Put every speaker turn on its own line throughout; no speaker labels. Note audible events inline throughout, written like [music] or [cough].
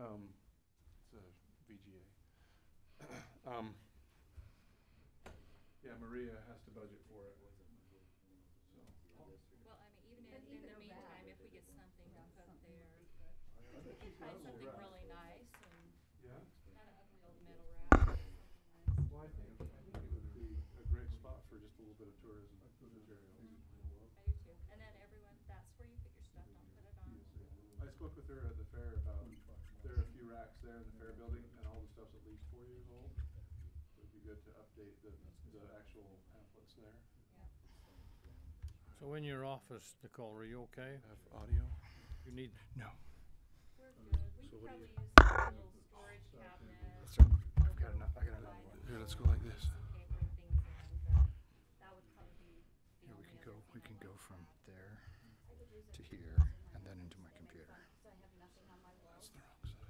um, it's a VGA. [coughs] Um, Yeah, Maria has to budget for it, so.
Well, I
But even
mean, even in, in the
though
meantime,
that-
if we get something to put there,
I think
we
she
can find
does
something
alright.
really nice and
Yeah,
not an ugly old metal rack. or something
well, I
nice.
think, I think it would be a great spot for just a little bit of tourism material.
I do too. And then everyone, that's where you put your stuff, don't put it on.
I spoke with her at the fair about, there are a few racks there in the fair building, and all the stuff's at least four years old. It would be good to update the, the actual pamphlets there.
Yeah.
So in your office, Nicole, are you okay?
Have audio?
You need,
No.
We're good. We
So
could
what do
probably
you-
use a little storage cabinet.
I've got enough, I got another one. Here, let's go like this.
uh, Here, we can
go- we can go from
there.
to here and then into my computer.
That's the wrong side.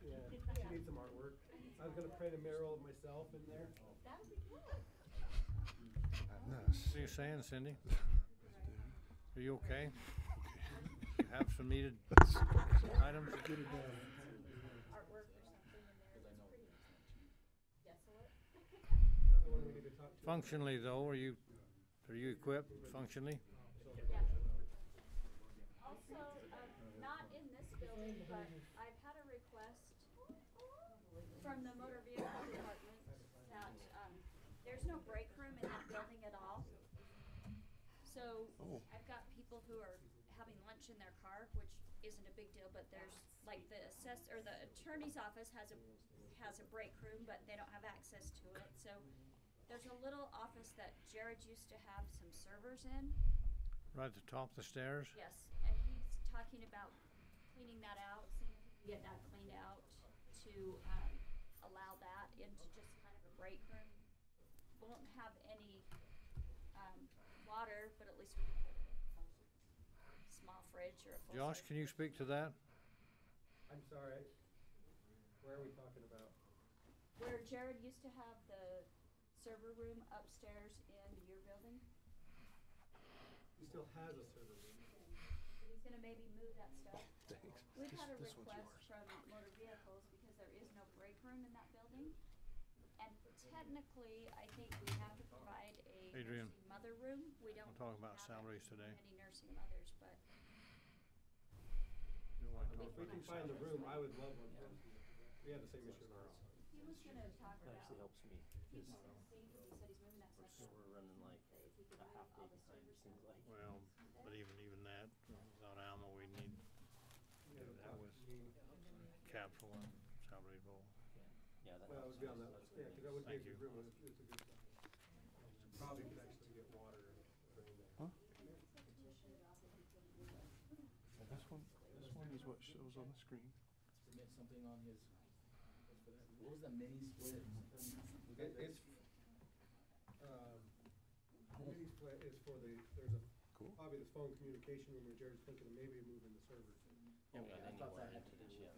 Yeah, she needs some artwork. I was gonna print a mural of myself in there.
And this.
what are you saying, Cindy? Are you
[laughs]
okay? You Have some needed items?
Another one we need to talk to.
Functionally though, are you, are you equipped functionally?
Also, um, not in this building, but I've had a request from the motor vehicle department that, um, there's no break room in that building at all. So
Oh.
I've got people who are having lunch in their car, which isn't a big deal, but there's, like, the assess, or the attorney's office has a, has a break room, but they don't have access to it, so there's a little office that Jared used to have some servers in.
Right at the top of the stairs?
Yes, and he's talking about cleaning that out, seeing if we can get that cleaned out to, um, allow that into just kind of a break room. Won't have any, um, water, but at least we can put a small fridge or a full.
Josh, can you speak to that?
I'm sorry. Where are we talking about?
Where Jared used to have the server room upstairs in your building,
He still has a server room.
he's gonna maybe move that stuff.
Thanks.
We've
This-
had a
this one's
request
yours.
from motor vehicles because there is no break room in that building. And technically, I think we have to provide a
Adrian.
nursing mother room. We don't.
talking about
have
salaries today.
Any nursing mothers, but
You don't wanna talk
If we
about
can
that?
find the room, I would love one. We have the same issue in our office.
he was gonna talk about.
actually helps me,
He was
because
gonna see, 'cause he said he's moving that
we're,
stuff. out,
we're running like
that if he could
a
move
half day
all the
behind,
server
it seems
stuff.
like.
Well, but even, even that, without Alma, we need
We gotta
That
talk
was-
to me.
capital and salary bowl.
Yeah, that
Well, it
helps.
would be on that,
That's
yeah,
good
cause that would be a
Thank
good
you.
room. It's it's a good spot. Probably could actually get water from there.
This one, this one is what shows on the screen.
submit something on his, what was the mini split?
Oh,
It, it's, um, the mini split is for the, there's a,
Cool.
probably the phone communication room where Jared's thinking of maybe moving the servers.
Yeah,
Okay,
then
I
you
thought
went
that had to
into
do
this, yeah,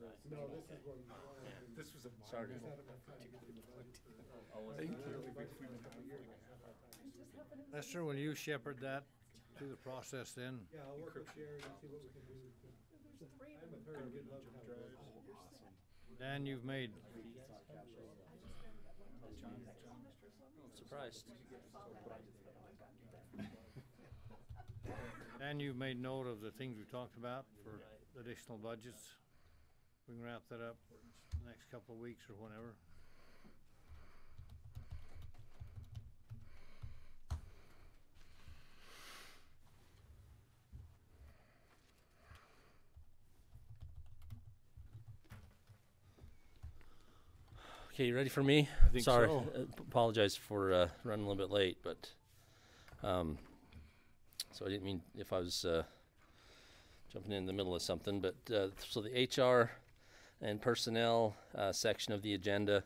with this.
No,
right.
this is one. [laughs] This was a.
Sorry.
Just had enough time to get through the budget [laughs] for-
Oh, was
I
it?
don't know, the budget's been a couple of years, I haven't had time.
Lester, will you shepherd that through the process then?
Yeah, I'll work with Jared and see what we can do. I'm with her, we'd love to have a vote.
Dan, you've made [laughs]
Surprised.
And you've made note of the things we talked about for additional budgets. We can wrap that up the next couple of weeks or whenever.
Okay, you ready for me?
think
Sorry,
so.
uh, p- apologize for uh, running a little bit late, but um, so I didn't mean if I was uh, jumping in the middle of something. But uh, so the HR and personnel uh, section of the agenda.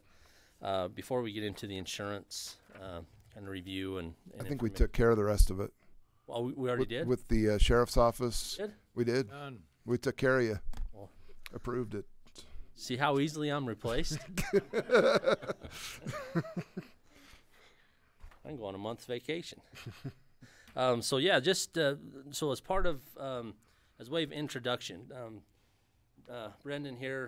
Uh, before we get into the insurance uh, kind of review and, and
I think we
informa-
took care of the rest of it.
Well, we, we already
with,
did.
with the uh, sheriff's office.
Did?
We did.
Done.
We took care of you.
Well.
Approved it.
See how easily I'm replaced? I can go on a month's vacation. um, so yeah, just uh, so as part of um, as way of introduction, um, uh, Brendan here